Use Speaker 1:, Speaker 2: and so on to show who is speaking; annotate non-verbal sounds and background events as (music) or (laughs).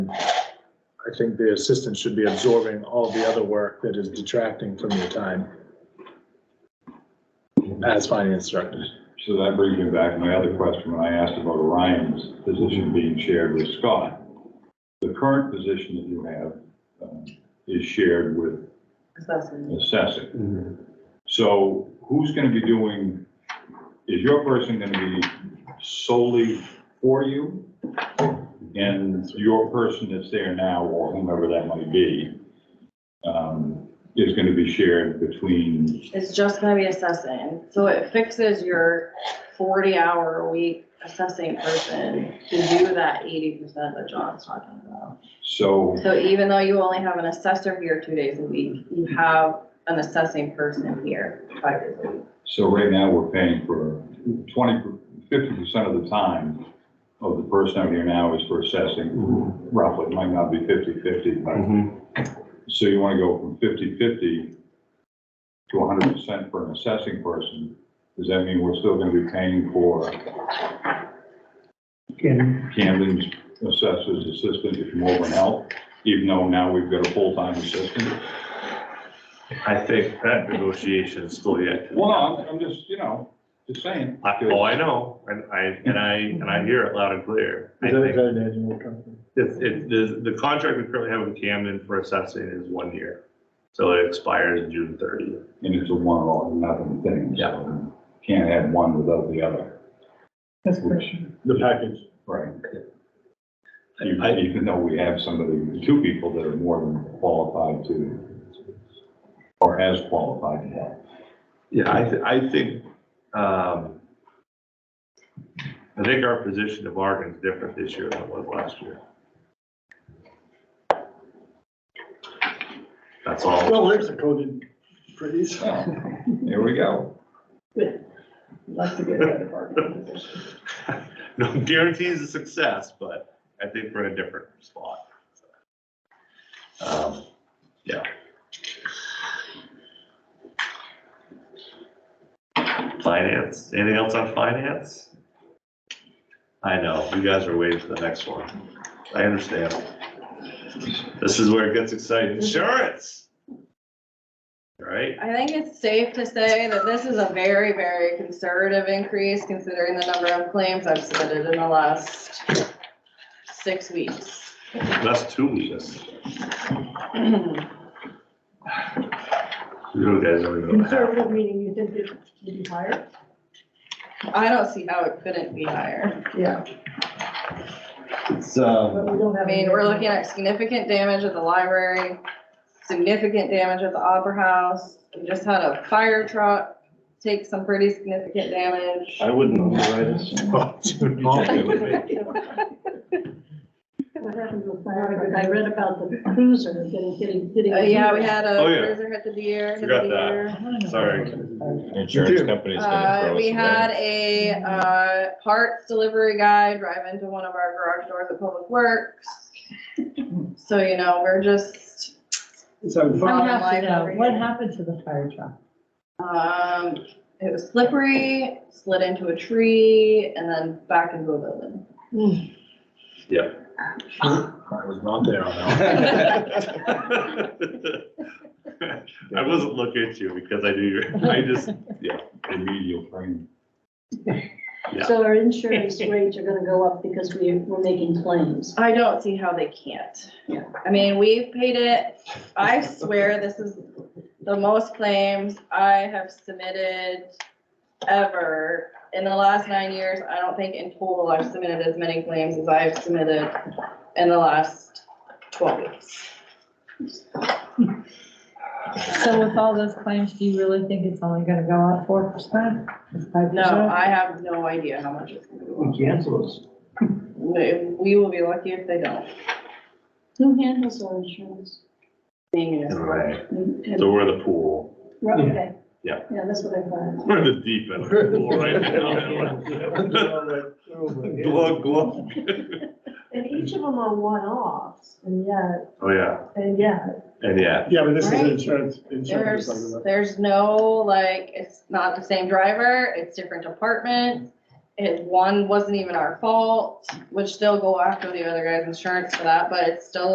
Speaker 1: I think the assistant should be absorbing all the other work that is detracting from your time as finance director.
Speaker 2: So that brings me back to my other question when I asked about Orion's position being shared with Scott. The current position that you have um, is shared with
Speaker 3: Assessing.
Speaker 2: assessing. So who's going to be doing, is your person going to be solely for you? And your person that's there now, or whomever that might be, um, is going to be shared between,
Speaker 3: It's just gonna be assessing, so it fixes your forty hour a week assessing person to do that eighty percent that John's talking about.
Speaker 2: so,
Speaker 3: So even though you only have an assessor here two days a week, you have an assessing person here five days a week.
Speaker 2: so right now we're paying for 20, 50% of the time of the person out here now is for assessing, roughly, it might not be 50/50, but
Speaker 4: Mhm.
Speaker 2: So you want to go from 50/50 to hundred percent for an assessing person, does that mean we're still going to be paying for
Speaker 5: Can,
Speaker 2: Camden's assessor's assistant if you over and help, even though now we've got a full-time assistant?
Speaker 4: I think that negotiation is still yet. to be
Speaker 2: Well, no,
Speaker 4: done.
Speaker 2: I'm, I'm just, you know, just saying.
Speaker 4: I- Oh, I know, and I, and I, and I hear it loud and clear. I
Speaker 5: is that a
Speaker 4: think
Speaker 5: good annual company?
Speaker 4: It's, it, the, the contract we currently have with Camden for assessing is one year. So it expires June thirtieth.
Speaker 2: And it's a one or nothing thing, so can't have one without the other,
Speaker 5: That's a question.
Speaker 1: The package.
Speaker 2: right? Even, even though we have somebody, two people that are more than qualified to, or as qualified to help.
Speaker 4: Yeah, I, thi- I think, um, I think our position to bargain is different this year than it was last year. That's all.
Speaker 5: Well, there's a coded phrase.
Speaker 2: Well, There we go.
Speaker 5: Like to get out of bargaining position.
Speaker 4: (laughs) No guarantees of success, but I think we're in a different spot. Um, Yeah. Finance, anything else on finance? I know, you guys are waiting for the next one. I understand. This is where it gets exciting. Insurance. Right?
Speaker 3: I think it's safe to say that this is a very, very conservative increase considering the number of claims I've submitted in the last six weeks. (clears throat)
Speaker 4: That's two weeks. You guys don't even know what happened.
Speaker 6: Conservative meaning you think it would be higher?
Speaker 3: I don't see how it couldn't be higher.
Speaker 6: Yeah.
Speaker 7: It's, uh,
Speaker 6: But we don't
Speaker 3: I
Speaker 6: have.
Speaker 3: mean, we're looking at significant damage at the library, significant damage at the Opera House. We just had a fire truck take some pretty significant damage. Uh,
Speaker 7: I wouldn't underwrite it.
Speaker 6: What happened to the fire? I read about the cruiser getting, getting, getting.
Speaker 3: Uh, yeah, we had a
Speaker 4: Oh, yeah.
Speaker 3: cruiser hit the deer. hit the
Speaker 4: Forgot that.
Speaker 3: deer.
Speaker 4: Sorry. (laughs)
Speaker 7: Insurance company's gonna
Speaker 3: Uh,
Speaker 7: throw us
Speaker 3: we
Speaker 7: away.
Speaker 3: had a, uh, parts delivery guy drive into one of our garage doors at Public Works. So, you know, we're just,
Speaker 6: What
Speaker 3: Fallen
Speaker 6: happened,
Speaker 3: life over
Speaker 6: uh, what
Speaker 3: here.
Speaker 6: happened to the fire truck?
Speaker 3: um, it was slippery, slid into a tree and then back into a building.
Speaker 1: I was not there on that.
Speaker 4: I wasn't looking at you because I knew you, were- I just,
Speaker 2: Remedial training.
Speaker 4: Yeah.
Speaker 8: So our insurance rates are gonna go up because we, we're making claims.
Speaker 3: I don't see how they can't.
Speaker 8: Yeah.
Speaker 3: I mean, we've paid it, I swear this is the most claims I have submitted ever. In the last nine years, I don't think in total I've submitted as many claims as I've submitted in the last twelve weeks.
Speaker 9: So with all those claims, do you really think it's only gonna go up four percent?
Speaker 3: No, I have no idea how much it's gonna go up.
Speaker 5: Cancel us.
Speaker 3: We- We will be lucky if they don't.
Speaker 8: Who handles our insurance?
Speaker 3: Being municipal.
Speaker 4: so
Speaker 8: And-
Speaker 4: we're the pool.
Speaker 8: Right, okay.
Speaker 4: Yeah.
Speaker 8: Yeah, that's what I thought.
Speaker 4: We're the deep end
Speaker 5: (laughs)
Speaker 4: of the pool right now. (laughs) Glug, glug.
Speaker 6: And each of them are one-offs, and yet,
Speaker 4: Oh, yeah.
Speaker 6: and yet,
Speaker 4: And yeah,
Speaker 5: Yeah, but this is
Speaker 3: Right.
Speaker 5: insurance, insurance.
Speaker 3: There's,
Speaker 5: is like that.
Speaker 3: there's no, like, it's not the same driver, it's different departments, It, one wasn't even our fault, would still go after the other guy's insurance for that, but it's still